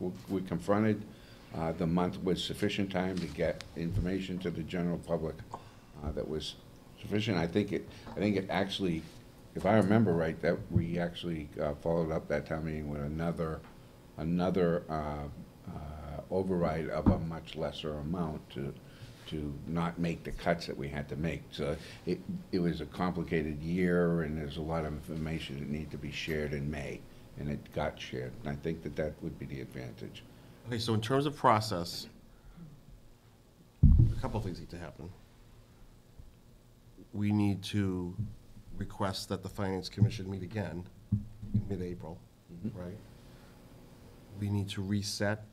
w- we confronted. Uh, The month was sufficient time to get information to the general public uh, that was sufficient. I think it, I think it actually, if I remember right, that we actually uh, followed up that town meeting with another, another uh, uh, override of a much lesser amount to, to not make the cuts that we had to make. So it, it was a complicated year, and there's a lot of information that needed to be shared in May, and it got shared. And I think that that would be the advantage. Okay, so in terms of process, a couple of things need to happen. We need to request that the Finance Commission meet again in mid-April, right? We need to reset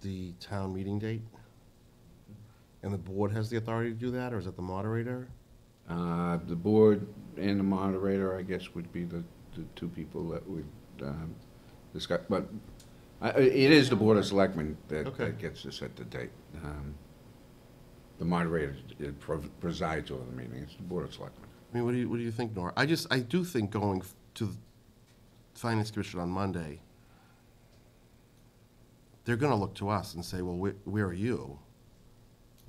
the town meeting date. And the board has the authority to do that, or is it the moderator? Uh, The board and the moderator, I guess, would be the, the two people that would um, discuss, but I- I- it is the Board of Selectmen that Okay. that gets to set the date. Um, The moderator uh, prov- presides over the meeting, it's the Board of Selectmen. I mean, what do you, what do you think, Nora? I just, I do think going f- to the Finance Commission on Monday, they're gonna look to us and say, well, where, where are you?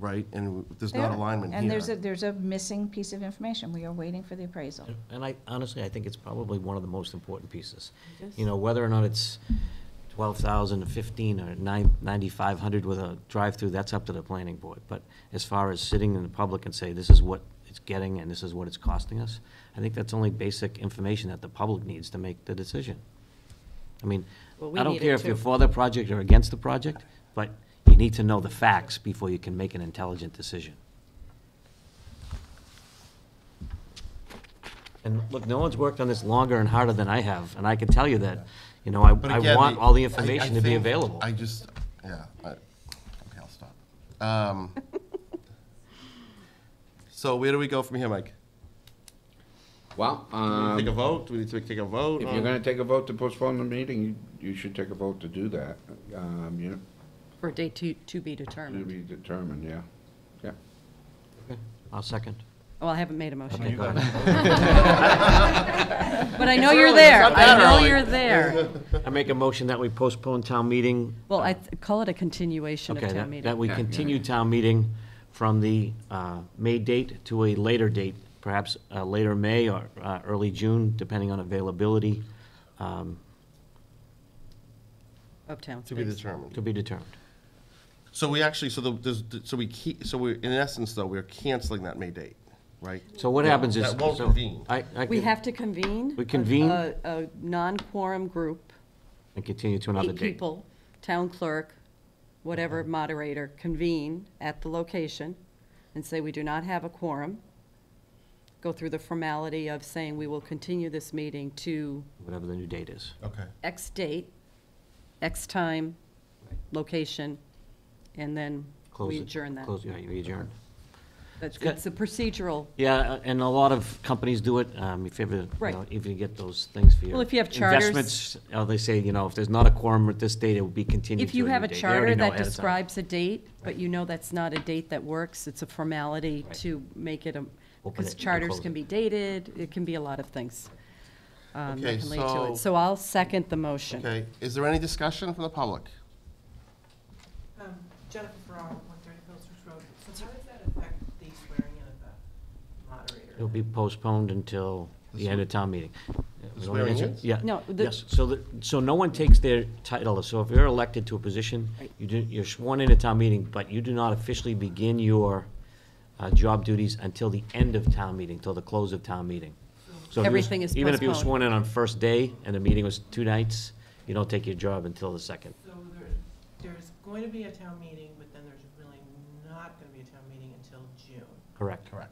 Right? And there's not Yeah. alignment And there's a, here. there's a missing piece of information. We are waiting for the appraisal. And I, honestly, I think it's probably one of the most important pieces. You know, whether or not it's twelve thousand or fifteen or nine, ninety-five hundred with a drive-through, that's up to the planning board. But as far as sitting in the public and say, this is what it's getting and this is what it's costing us, I think that's only basic information that the public needs to make the decision. I mean, Well, we I don't need care it if you're too. for the project or against the project, but you need to know the facts before you can make an intelligent decision. And look, no one's worked on this longer and harder than I have, and I can tell you that, you know, I, But I again, want all the I- I information to be think- available. I just, yeah, I, okay, I'll stop. Um, So where do we go from here, Mike? Well, Do we um, Take a vote? Do we need to take a vote? if you're gonna take a vote to postpone the meeting, you, you should take a vote to do that. Um, You know, For a date to, to be to determined. be determined, yeah, yeah. I'll second. Well, I haven't made a motion. Okay, yet. go ahead. But I know you're there. I know you're there. I make a motion that we postpone town meeting. Well, I th- call it a continuation of Okay, town that- that meeting. we Yeah, yeah. continue town meeting from the uh, May date to a later date, perhaps uh, later May or uh, early June, depending on availability, um, Of town To be space. determined. to be determined. So we actually, so the, there's- so we keep, so we, in essence, though, we're canceling that May date, right? So what happens is. That won't so convene. I- I We can- have to convene. We convene. A, a non-quorum group, And continue to another eight date. people, town clerk, whatever moderator, convene at the location and say we do not have a quorum. Go through the formality of saying we will continue this meeting to Whatever the new date is. Okay. X date, X time, location, and then Close we it- adjourn that. Close, yeah, you adjourn. That's, good. it's a procedural, Yeah, uh, and a lot of companies do it, um, if you ever, you Right. know, if you get those things for your. Well, if you have charters- Investments, uh, they say, you know, if there's not a quorum at this date, it will be continued if to you new have a date. They already charter know that ahead of time. describes a date, but you know that's not a date that works, it's a formality Right. to make it a, Open it because and charters close can it. be dated, it can be a lot of things. um, that Okay, can lead to so- it. So I'll second the motion. Okay, is there any discussion from the public? Um, Jennifer Ferraro, one thirty Pilsner's Road. So how does that affect the swearing in of the moderator? It'll be postponed until the end of town meeting. We don't swearing answer- in? Yeah. No, the- Yes, so that, so no one takes their title, so if you're elected to a position, you do, you're sworn in at town meeting, but you do not officially begin your, uh, job duties until the end of town meeting, till the close of town meeting. So if you was- Everything is Even if you were postponed. sworn in on first day and the meeting was two nights, you don't take your job until the second. So there, there's going to be a town meeting, but then there's really not gonna be a town meeting until June. Correct. Correct.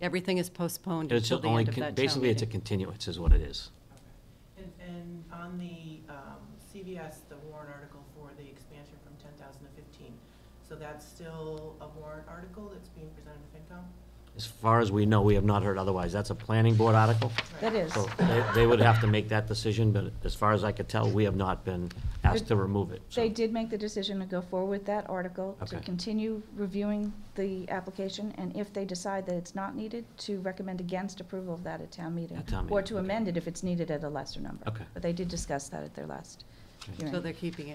Everything is postponed It's until the only, end of con- that town basically, it's a meeting. continuance is what it is. Okay. And, and on the, um, CVS, the warrant article for the expansion from ten thousand to fifteen, so that's still a warrant article that's being presented to FinCom? As far as we know, we have not heard otherwise. That's a planning board article. That is. So they, they would have to make that decision, but as far as I could tell, we have not been asked to remove it. so- They did make the decision to go forward with that article, to Okay. continue reviewing the application, and if they decide that it's not needed, to recommend against approval of that at town meeting. At town Or meeting, to okay. amend it if it's needed at a lesser number. Okay. But they did discuss that at their last Okay. hearing. So they're keeping it.